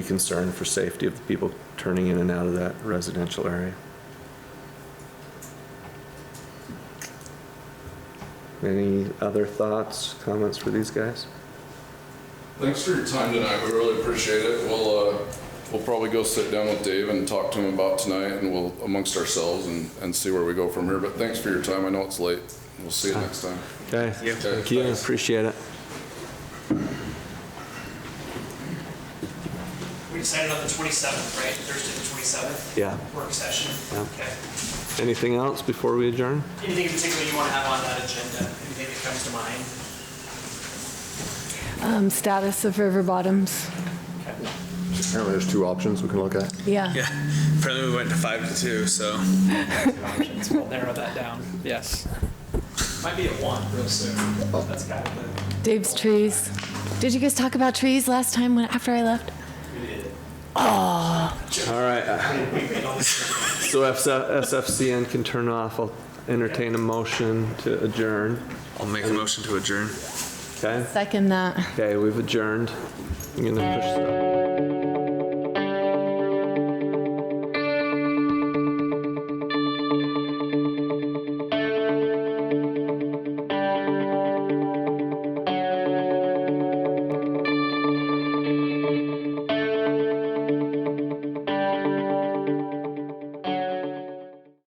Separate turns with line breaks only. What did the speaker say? concern for safety of the people turning in and out of that residential area. Any other thoughts, comments for these guys?
Thanks for your time tonight. We really appreciate it. We'll, uh, we'll probably go sit down with Dave and talk to him about tonight and we'll amongst ourselves and, and see where we go from here. But thanks for your time. I know it's late. We'll see you next time.
Okay, thank you, appreciate it.
We decided on the 27th, right? Thursday, the 27th?
Yeah.
Work session?
Yeah.
Okay.
Anything else before we adjourn?
Anything in particular you want to have on that agenda? Anything that comes to mind?
Um, Status of river bottoms,
Apparently, there's two options we can look at.
yeah.
Yeah, apparently we went to five to two, so.
We'll narrow that down, yes. Might be at 1 real soon. That's kind of the,
Dave's trees. Did you guys talk about trees last time when, after I left?
All right, so SF SFCN can turn off, I'll entertain a motion to adjourn,
I'll make a motion to adjourn.
okay?
Second that.
Okay, we've adjourned. I'm gonna push.